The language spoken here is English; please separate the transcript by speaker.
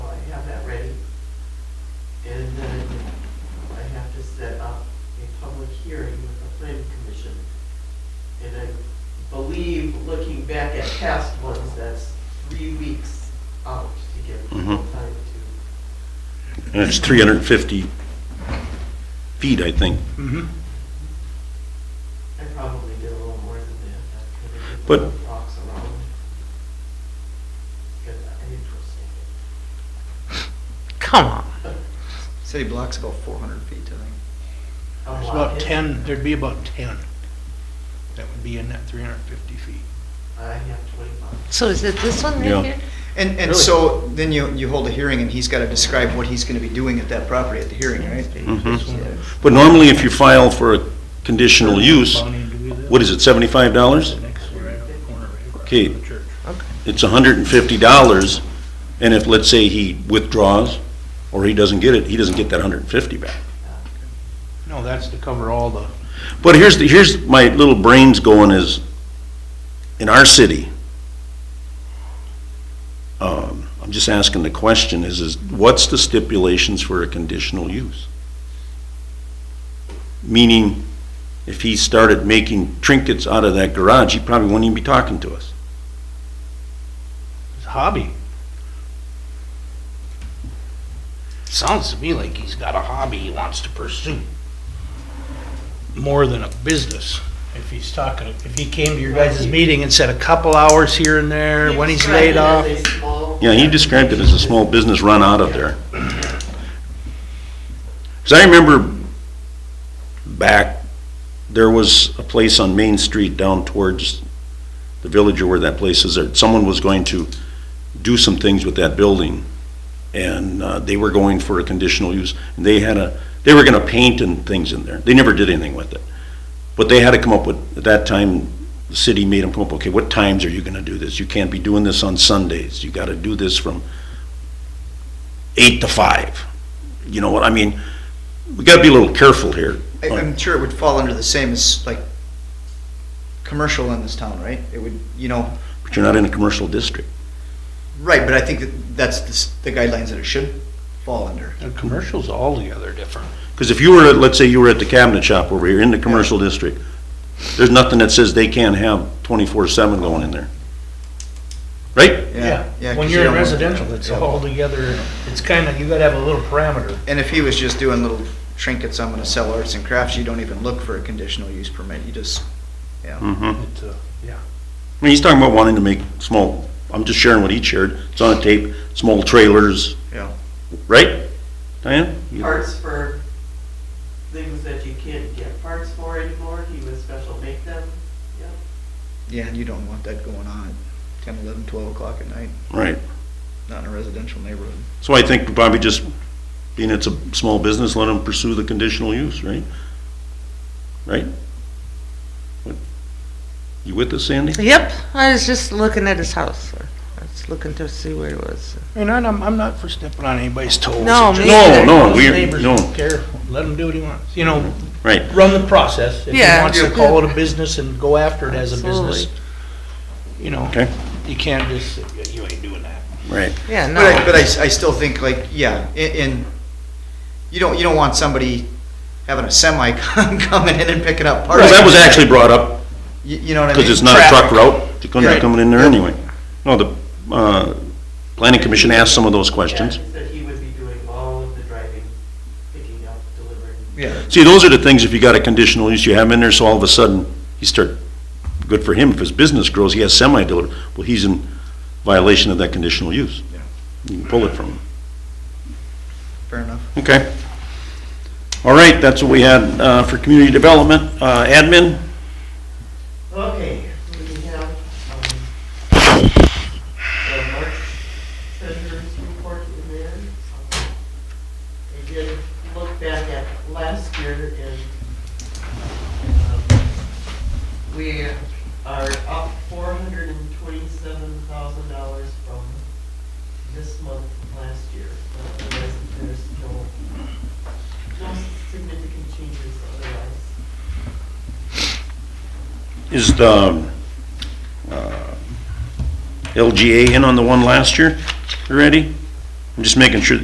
Speaker 1: past ones, that's three weeks out to give people
Speaker 2: Mhm.
Speaker 1: time
Speaker 2: And it's 350 feet, I think.
Speaker 1: to,
Speaker 3: Mhm.
Speaker 1: I probably did a little more than that.
Speaker 2: But-
Speaker 1: Rocks around. Get that interesting.
Speaker 4: Come on.
Speaker 5: City block's about four hundred feet, I think.
Speaker 1: A
Speaker 3: There's
Speaker 1: lot
Speaker 3: about
Speaker 1: is-
Speaker 3: 10, there'd be about 10 that would be in that 350 feet.
Speaker 1: I have twenty-five.
Speaker 4: So is it this one
Speaker 2: Yeah.
Speaker 4: right here?
Speaker 5: And, and so then you, you hold a hearing and he's gotta describe what he's gonna be doing at that property at the hearing, right?
Speaker 2: Mhm. But normally, if you file for a conditional use,
Speaker 3: Bonnie, do we do that?
Speaker 2: what is it, $75?
Speaker 3: The next one right up the corner, right across
Speaker 2: Okay.
Speaker 3: from the church.
Speaker 2: It's $150, and if, let's say, he withdraws, or he doesn't get it, he doesn't get that 150 back.
Speaker 3: No, that's to cover all the,
Speaker 2: But here's, the here's my little brains going is, in our city, um, I'm just asking the question is, is what's the stipulations for a conditional use? Meaning, if he started making trinkets out of that garage, he probably wouldn't even be talking to us.
Speaker 3: his hobby. Sounds to me like he's got a hobby he wants to pursue. More than a business. If he's talking, if he came to your guys' meeting and said a couple hours here and there, when he's laid off.
Speaker 2: Yeah, he described it as a small business run out of there. Because I remember back, there was a place on Main Street down towards the village or where that place is there. Someone was going to do some things with that building, and uh, they were going for a conditional use. And they had a, they were gonna paint and things in there. They never did anything with it. But they had to come up with, at that time, the city made them come up, okay, what times are you gonna do this? You can't be doing this on Sundays. You gotta do this from eight to five. You know what, I mean, we gotta be a little careful here.
Speaker 5: I, I'm sure it would fall under the same as like commercial in this town, right? It would, you know,
Speaker 2: But you're not in a commercial district.
Speaker 5: right, but I think that that's the, s- the guidelines that it should fall under.
Speaker 3: The commercial's altogether different.
Speaker 2: Because if you were, let's say you were at the cabinet shop over here in the commercial district, there's nothing that says they can't have twenty-four seven going in there. Right?
Speaker 5: Yeah.
Speaker 3: When
Speaker 5: 'cause
Speaker 3: you're
Speaker 5: you
Speaker 3: in
Speaker 5: don't want-
Speaker 3: residential, it's
Speaker 5: yeah.
Speaker 3: altogether, it's kind of, you gotta have a little parameter.
Speaker 5: And if he was just doing little trinkets, I'm gonna sell arts and crafts, you don't even look for a conditional use permit, you just, yeah.
Speaker 2: Mm-hmm.
Speaker 3: It, uh, Yeah.
Speaker 2: I mean, he's talking about wanting to make small, I'm just sharing what he shared, it's on a tape, small trailers.
Speaker 5: Yeah.
Speaker 2: Right? Diane? You-
Speaker 1: Parts for things that you can't get parts for anymore, he would special make them, yeah.
Speaker 5: Yeah, and you don't want that going on at ten, eleven, twelve o'clock at night,
Speaker 2: Right.
Speaker 5: not in a residential neighborhood.
Speaker 2: So I think probably just, being it's a small business, let him pursue the conditional use, right? Right? What- You with us, Sandy?
Speaker 4: Yep, I was just looking at his house. I was looking to see where it was.
Speaker 3: And I'm, I'm not for stepping on anybody's toes.
Speaker 4: No,
Speaker 3: It's
Speaker 4: me
Speaker 3: just-
Speaker 4: neither.
Speaker 2: No, no, we-
Speaker 3: Neighbors
Speaker 2: no.
Speaker 3: don't care, let him do what he wants, you know,
Speaker 2: Right.
Speaker 3: run the process. If he
Speaker 4: Yeah.
Speaker 3: wants to call it a business and go after it as a business,
Speaker 4: Absolutely.
Speaker 3: you know.
Speaker 2: Okay.
Speaker 3: You can't just, say, "Yeah, you ain't doing that.
Speaker 2: Right.
Speaker 4: Yeah, no.
Speaker 5: But I, but I, s- I still think like, yeah, i- in, you don't, you don't want somebody having a semi coming in and picking up parts.
Speaker 2: Well, that was actually brought up,
Speaker 5: You, you know what I mean?
Speaker 2: because it's not a truck
Speaker 5: Traffic.
Speaker 2: route, you couldn't be
Speaker 5: Right.
Speaker 2: coming in there anyway. No, the, uh, planning commission asked some of those questions.
Speaker 1: Yeah, he said he would be doing all of the driving, picking up, delivering.
Speaker 5: Yeah,
Speaker 2: See, those are the things, if you got a conditional use, you have him in there, so all of a sudden, he start, good for him, if his business grows, he has semi-dealer, well, he's in violation of that conditional use.
Speaker 5: Yeah.
Speaker 2: You can pull it from him.
Speaker 5: fair enough.
Speaker 2: Okay. All right, that's what we had uh, for community development. Uh, Admin,
Speaker 1: Okay, we have, um, the March treasurer's report in there. Um, I did look back at last year and, um, we are up four hundred and twenty-seven thousand dollars from this month last year. Uh, There's, there's no, no significant changes otherwise.
Speaker 2: is the um, uh, LGA in on the one last year already? I'm just making sure,